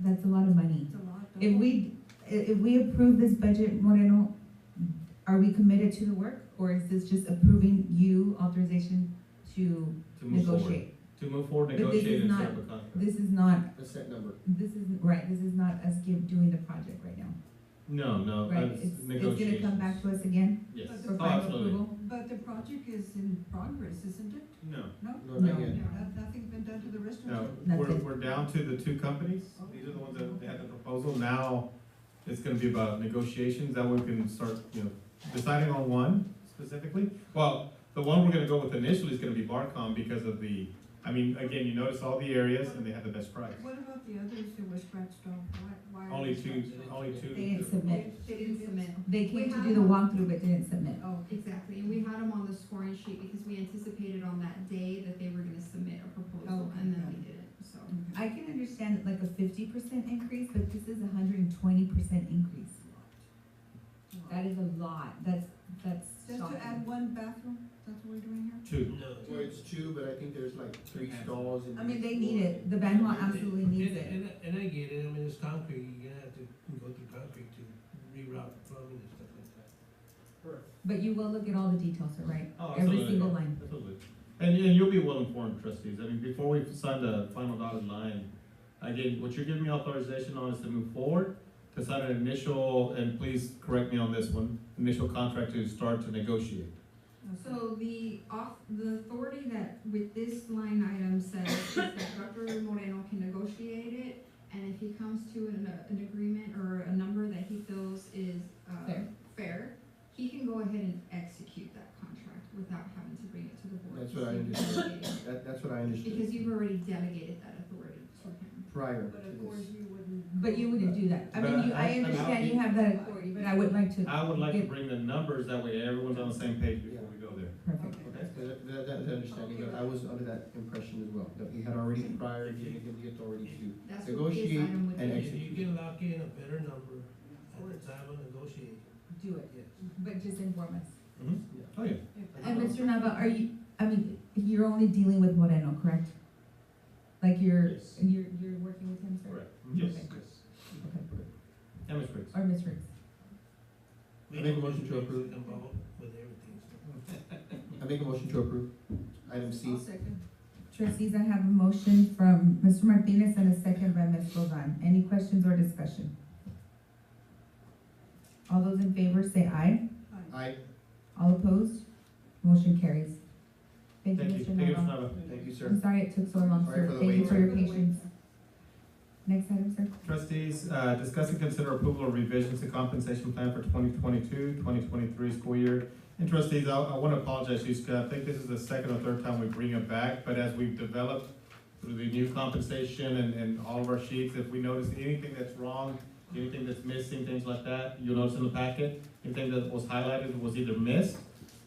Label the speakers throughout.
Speaker 1: that's a lot of money.
Speaker 2: It's a lot.
Speaker 1: If we, i- if we approve this budget, Moreno, are we committed to the work? Or is this just approving you authorization to
Speaker 3: To move forward,
Speaker 1: negotiate?
Speaker 3: to move forward,
Speaker 1: But this is
Speaker 3: negotiate and
Speaker 1: not-
Speaker 3: set up a contract.
Speaker 1: This is not,
Speaker 4: a set number.
Speaker 1: this is, right, this is not us give, doing the project right now,
Speaker 3: No, no,
Speaker 1: right?
Speaker 3: that's
Speaker 1: It's, it's gonna
Speaker 3: negotiations.
Speaker 1: come back to us again
Speaker 3: Yes,
Speaker 2: But the
Speaker 1: for
Speaker 3: oh,
Speaker 1: final
Speaker 3: absolutely.
Speaker 1: approval?
Speaker 2: But the project is in progress, isn't it?
Speaker 3: No,
Speaker 2: No?
Speaker 4: No, not
Speaker 1: No.
Speaker 4: yet.
Speaker 2: No, Nothing's been done to the
Speaker 3: no,
Speaker 2: restaurant?
Speaker 1: That's
Speaker 3: we're,
Speaker 1: it.
Speaker 3: we're down to the two companies, these are the ones that had the proposal, now it's gonna be about negotiations, that way we can start, you know, deciding on one specifically. Well, the one we're gonna go with initially is gonna be Barcom because of the, I mean, again, you notice all the areas and they had the best price.
Speaker 2: What about the others that were scratched off? Why, why? are
Speaker 3: Only
Speaker 2: they
Speaker 3: two,
Speaker 2: scratched off?
Speaker 3: only
Speaker 1: They
Speaker 3: two,
Speaker 1: didn't submit,
Speaker 5: They didn't submit.
Speaker 1: they came to do the walkthrough but didn't submit.
Speaker 2: Oh,
Speaker 5: Exactly, and we had them on the scoring sheet because we anticipated on that day that they were gonna submit a proposal,
Speaker 2: Okay,
Speaker 5: and then
Speaker 2: got
Speaker 5: they didn't, so.
Speaker 2: okay.
Speaker 1: I can understand like a fifty percent increase, but this is a hundred and twenty percent increase. That is a lot, that's, that's
Speaker 2: Just to add
Speaker 1: shocking.
Speaker 2: one bathroom, that's what we're doing here?
Speaker 3: two.
Speaker 4: Well, it's two, but I think there's like three stalls and.
Speaker 1: I mean, they need it, the Benoit absolutely needs
Speaker 6: And,
Speaker 1: it.
Speaker 6: and, and I get it, I mean, it's concrete, you're gonna have to go through concrete to reroute plumbing and stuff like that.
Speaker 1: But you will look at all the details, sir, right?
Speaker 3: Oh,
Speaker 1: Every
Speaker 3: absolutely.
Speaker 1: single line.
Speaker 3: Absolutely. And, and you'll be well informed, trustees. I mean, before we sign the final dotted line, again, what you're giving me authorization on is to move forward, to sign an initial, and please correct me on this one, initial contract to start to negotiate.
Speaker 5: So the off, the authority that with this line item says is that Dr. Moreno can negotiate it, and if he comes to an, an agreement or a number that he feels is, uh,
Speaker 1: Fair.
Speaker 5: fair, he can go ahead and execute that contract without having to bring it to the board.
Speaker 4: That's
Speaker 5: to
Speaker 4: what I
Speaker 5: see if it's delegated.
Speaker 4: That, that's what I understood
Speaker 5: Because you've already delegated that authority to him.
Speaker 4: prior
Speaker 2: But of course,
Speaker 4: to
Speaker 2: you wouldn't.
Speaker 1: But you wouldn't do that. I mean, you,
Speaker 3: But I-
Speaker 1: I
Speaker 3: I-
Speaker 1: understand you have that authority, but I would like to.
Speaker 3: I would like to
Speaker 1: get-
Speaker 3: bring the numbers, that way everyone's on the same page before we go there.
Speaker 1: Perfect.
Speaker 2: Okay.
Speaker 4: this. That, that, that's understanding, but I was under that impression as well, that he had already prior given him the authority to.
Speaker 5: That's what this
Speaker 4: Negotiate
Speaker 5: item would
Speaker 4: and
Speaker 5: be.
Speaker 4: ex-
Speaker 6: You, you can lock in a better number at the time of negotiation,
Speaker 1: Do it,
Speaker 6: yes.
Speaker 1: but just inform us.
Speaker 3: Mhm. Oh, yeah.
Speaker 1: And Mr. Nava, are you, I mean, you're only dealing with Moreno, correct? Like you're,
Speaker 3: Yes.
Speaker 1: you're, you're working with him, sir?
Speaker 3: Correct. Yes,
Speaker 1: Okay.
Speaker 3: yes.
Speaker 1: Okay.
Speaker 3: Yeah, Ms. Briggs.
Speaker 1: Or Ms. Riggs?
Speaker 6: We
Speaker 4: I make a
Speaker 6: don't
Speaker 4: motion to
Speaker 6: get
Speaker 4: approve.
Speaker 6: Involved with everything, so.
Speaker 4: I make a motion to approve. Item C.
Speaker 2: I'll second.
Speaker 1: Trustees, I have a motion from Mr. Martinez and a second by Ms. Rodan. Any questions or discussion? All those in favor say aye.
Speaker 2: Aye.
Speaker 4: Aye,
Speaker 1: All opposed? Motion carries. Thank you,
Speaker 3: Thank you.
Speaker 1: Mr.
Speaker 3: Thank you, Mr.
Speaker 1: Nava.
Speaker 3: Nava.
Speaker 4: Uh, thank you, sir.
Speaker 1: I'm sorry it took so long,
Speaker 4: Sorry
Speaker 1: sir.
Speaker 4: for the
Speaker 1: Thank you
Speaker 4: wait.
Speaker 1: for your
Speaker 2: Sorry for the wait.
Speaker 1: patience. Next item, sir.
Speaker 3: Trustees, uh, discuss and consider approval of revisions to compensation plan for 2022-2023 school year. And trustees, I, I wanna apologize, Yuska, I think this is the second or third time we bring it back, but as we've developed through the new compensation and, and all of our sheets, if we notice anything that's wrong, anything that's missing, things like that, you'll notice in the packet, anything that was highlighted was either missed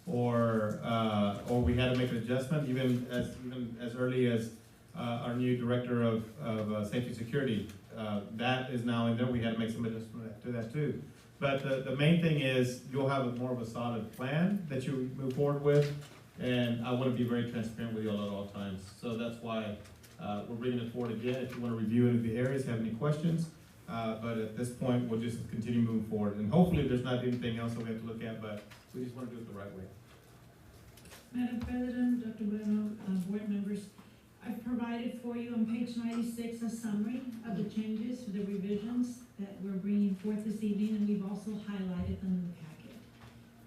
Speaker 3: or, uh, or we had to make an adjustment, even as, even as early as, uh, our new director of, of, uh, safety security uh, that is now in there, we had to make some adjustment to that too. But the, the main thing is, you'll have a more of a solid plan that you move forward with, and I wanna be very transparent with you all at all times. So that's why, uh, we're bringing it forward again, if you wanna review any of the areas, have any questions, uh, but at this point, we'll just continue moving forward, and hopefully there's not anything else that we have to look at, but we just wanna do it the right way.
Speaker 7: Madam President, Dr. Bueno, uh, board members, I've provided for you on page ninety-six a summary of the changes, the revisions that we're bringing forth this evening, and we've also highlighted them in the packet.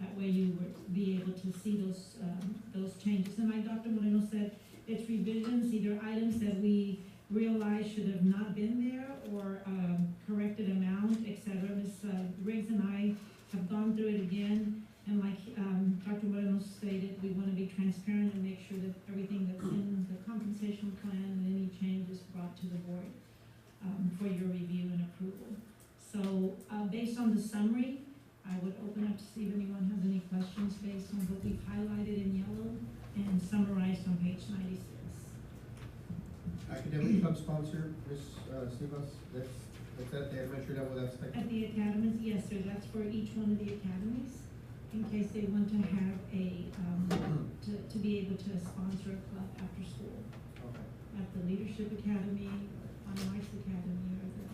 Speaker 7: That way you would be able to see those, um, those changes. And like Dr. Moreno said, it's revisions, either items that we realized should have not been there or, um, corrected amount, et cetera. Ms. Riggs and I have gone through it again and like, um, Dr. Moreno stated, we wanna be transparent and make sure that everything that's in the compensation plan and any change is brought to the board, um, for your review and approval. So, uh, based on the summary, I would open up to see if anyone has any questions based on what we've highlighted in yellow and summarized on page ninety-six.
Speaker 4: Academic club sponsor, Ms. Sivas, that's, that's at the elementary level, that's like.
Speaker 7: At the academies, yes, sir, that's for each one of the academies, in case they want to have a, um, to, to be able to sponsor a club after school.
Speaker 4: Okay.
Speaker 7: at the Leadership Academy, on Mike's Academy,